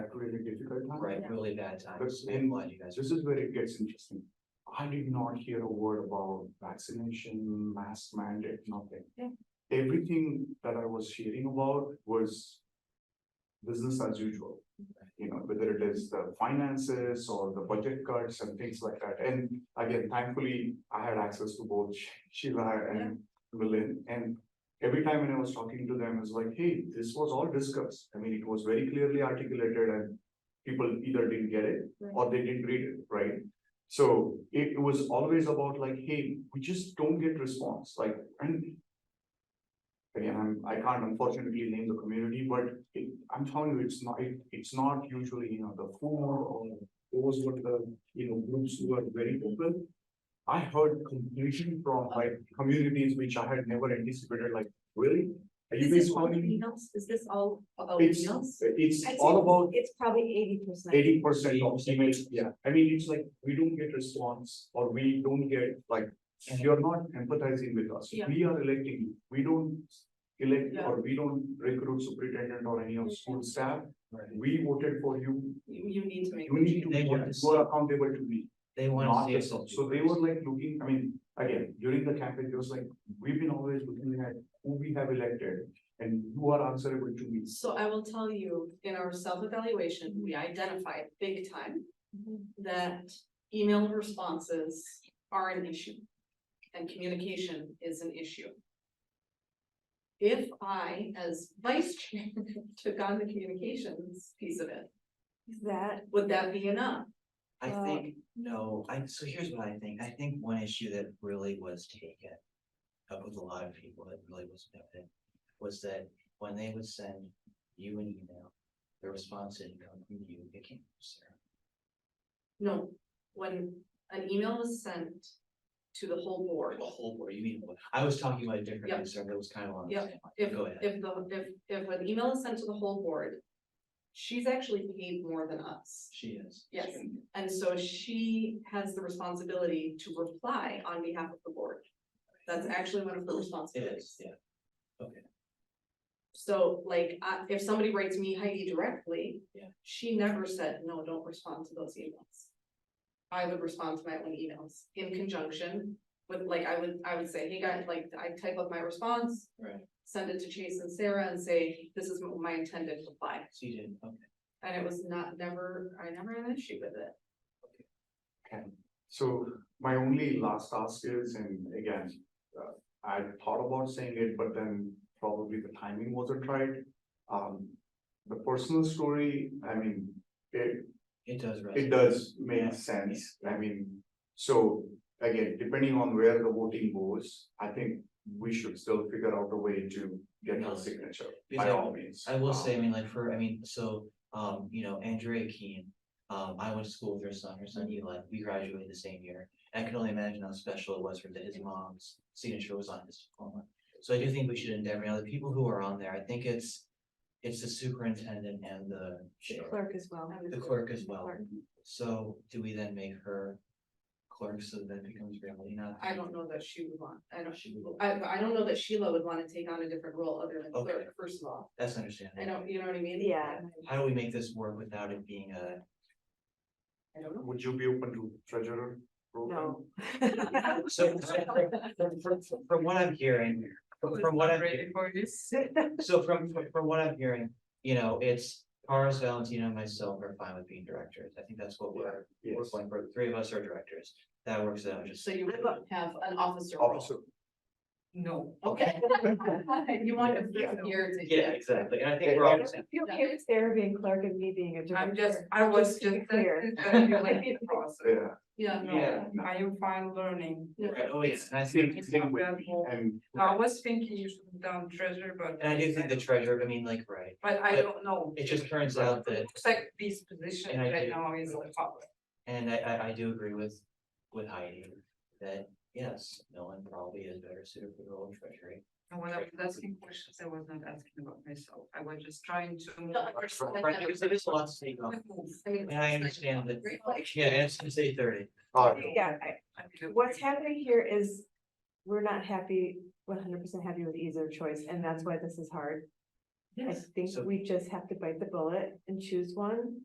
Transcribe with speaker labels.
Speaker 1: Right, really bad times.
Speaker 2: But-
Speaker 1: I'm glad you guys are.
Speaker 2: This is where it gets interesting. I did not hear a word about vaccination, mask mandate, nothing.
Speaker 1: Yeah.
Speaker 2: Everything that I was hearing about was business as usual. You know, whether it is the finances or the budget cuts and things like that. And again, thankfully, I had access to both Sheila and Willin. And every time when I was talking to them, I was like, hey, this was all discussed. I mean, it was very clearly articulated and people either didn't get it or they didn't read it, right? So it, it was always about like, hey, we just don't get response, like, and. Again, I'm, I can't unfortunately name the community, but it, I'm telling you, it's not, it, it's not usually, you know, the four or those were the, you know, groups who are very open. I heard confusion from like communities which I had never anticipated, like, really? Are you
Speaker 3: Is
Speaker 2: guys
Speaker 3: this all
Speaker 2: finding?
Speaker 3: meals? Is this all about
Speaker 2: It's,
Speaker 3: meals?
Speaker 2: it's
Speaker 3: I'd
Speaker 2: all
Speaker 3: say
Speaker 2: about
Speaker 3: It's probably eighty percent.
Speaker 2: eighty percent of emails, yeah, I mean, it's like, we don't get response, or we don't get, like, you're not empathizing with us,
Speaker 3: Yeah.
Speaker 2: we are electing you, we don't elect,
Speaker 3: Yeah.
Speaker 2: or we don't recruit superintendent or any of school staff,
Speaker 1: Right.
Speaker 2: we voted for you,
Speaker 3: You, you need to make.
Speaker 2: you need to,
Speaker 1: They
Speaker 2: be-
Speaker 1: want to
Speaker 2: you are accountable to me,
Speaker 1: They
Speaker 2: not
Speaker 1: want to
Speaker 2: the
Speaker 1: see
Speaker 2: self.
Speaker 1: us.
Speaker 2: So they were like looking, I mean, again, during the campaign, it was like, we've been always looking at who we have elected, and who are answerable to me.
Speaker 3: So I will tell you, in our self-evaluation, we identified big time that email responses are an issue. And communication is an issue. If I, as vice chair, took on the communications piece of it,
Speaker 4: That,
Speaker 3: would that be enough?
Speaker 1: I
Speaker 4: Uh,
Speaker 1: think, no, I, so here's what I think, I think one issue that really was taken. Up with a lot of people that really was noted, was that when they would send you an email, the response didn't come from you, it came from Sarah.
Speaker 3: No, when an email was sent to the whole board,
Speaker 1: The whole board, you mean, I was talking about a different
Speaker 3: Yep.
Speaker 1: concern that was kind of on the
Speaker 3: Yep.
Speaker 1: same line.
Speaker 3: if,
Speaker 1: Go ahead.
Speaker 3: if the, if, if an email is sent to the whole board, she's actually paid more than us.
Speaker 1: She is.
Speaker 3: Yes, and so she has the responsibility to reply on behalf of the board. That's actually one of her
Speaker 1: It
Speaker 3: responsibilities.
Speaker 1: is, yeah.
Speaker 3: So like, I if somebody writes me Heidi directly.
Speaker 1: Yeah.
Speaker 3: She never said, no, don't respond to those emails. I would respond to my own emails in conjunction with, like, I would, I would say, hey guys, like, I type up my response.
Speaker 1: Right.
Speaker 3: Send it to Chase and Sarah and say, this is my intended reply,
Speaker 1: So you didn't, okay.
Speaker 3: and it was not, never, I never had an issue with it.
Speaker 2: So my only last ask is, and again, uh, I thought about saying it, but then probably the timing wasn't right. Um, the personal story, I mean, it,
Speaker 1: It does resonate.
Speaker 2: it does
Speaker 1: Yeah.
Speaker 2: make sense. I mean, so again, depending on where the voting goes, I think we should still figure out a way to get her signature by all means.
Speaker 1: I will
Speaker 2: Um,
Speaker 1: say, I mean, like for, I mean, so, um, you know, Andrea Keen, um, I went to school with her son, her son Eli, we graduated the same year. I can only imagine how special it was for that his mom's signature was on his diploma. So I do think we should endeavor, now the people who are on there, I think it's, it's the superintendent and the chair,
Speaker 4: clerk as well.
Speaker 3: And
Speaker 1: the clerk as well. So do we then make her clerk so that becomes reality, not?
Speaker 3: I don't know that she would want, I don't,
Speaker 1: She would.
Speaker 3: I, I don't know that Sheila would wanna take on a different role other than
Speaker 1: Okay.
Speaker 3: clerk, first of all.
Speaker 1: That's
Speaker 3: I
Speaker 1: understandable.
Speaker 3: don't, you know what I mean?
Speaker 4: Yeah.
Speaker 1: How do we make this work without it being a?
Speaker 3: I don't know.
Speaker 2: Would you be open to treasurer? role?
Speaker 4: No.
Speaker 1: So, so from, from, from- from what I'm hearing, from from what I'm, so from, from- from what I'm hearing, you know, it's Paris, Valentino, and myself are fine with being directors. I think that's what we're, we're
Speaker 2: Yes,
Speaker 1: going for. Three of us are directors. That works out, just.
Speaker 3: So you would have an officer role?
Speaker 2: officer,
Speaker 3: No. Okay. You want a person here to.
Speaker 1: Yeah, exactly. And I think we're all, the same.
Speaker 4: You okay with Sarah being clerk and me being a director?
Speaker 5: I'm just, I was
Speaker 4: to be
Speaker 5: just.
Speaker 4: Clear.
Speaker 5: Are
Speaker 2: yeah,
Speaker 3: Yeah, no.
Speaker 1: Yeah.
Speaker 5: you fine learning?
Speaker 1: Right, oh, yes, and I think,
Speaker 2: same, same with, and
Speaker 5: I was thinking you should have done treasure, but.
Speaker 1: and I do think the treasurer, I mean, like, right,
Speaker 5: But I don't know.
Speaker 1: it just turns out that,
Speaker 5: It's like this position
Speaker 1: And I
Speaker 5: right
Speaker 1: do.
Speaker 5: now is a public.
Speaker 1: and I, I, I do agree with, with Heidi. That, yes, no one probably is better suited for the role of treasury.
Speaker 5: And when I was asking questions, I was not asking about myself. I was just trying to. move.
Speaker 3: No, I understand that.
Speaker 1: Right, because there is a lot to take on.
Speaker 3: I mean,
Speaker 1: And I understand that,
Speaker 3: Right, like,
Speaker 1: yeah, it's gonna say thirty.
Speaker 2: uh,
Speaker 4: Yeah, I-
Speaker 5: I mean,
Speaker 4: what's happening here is we're not happy, one hundred percent happy with either choice, and that's why this is hard. I think
Speaker 1: So-
Speaker 4: we just have to bite the bullet and choose one.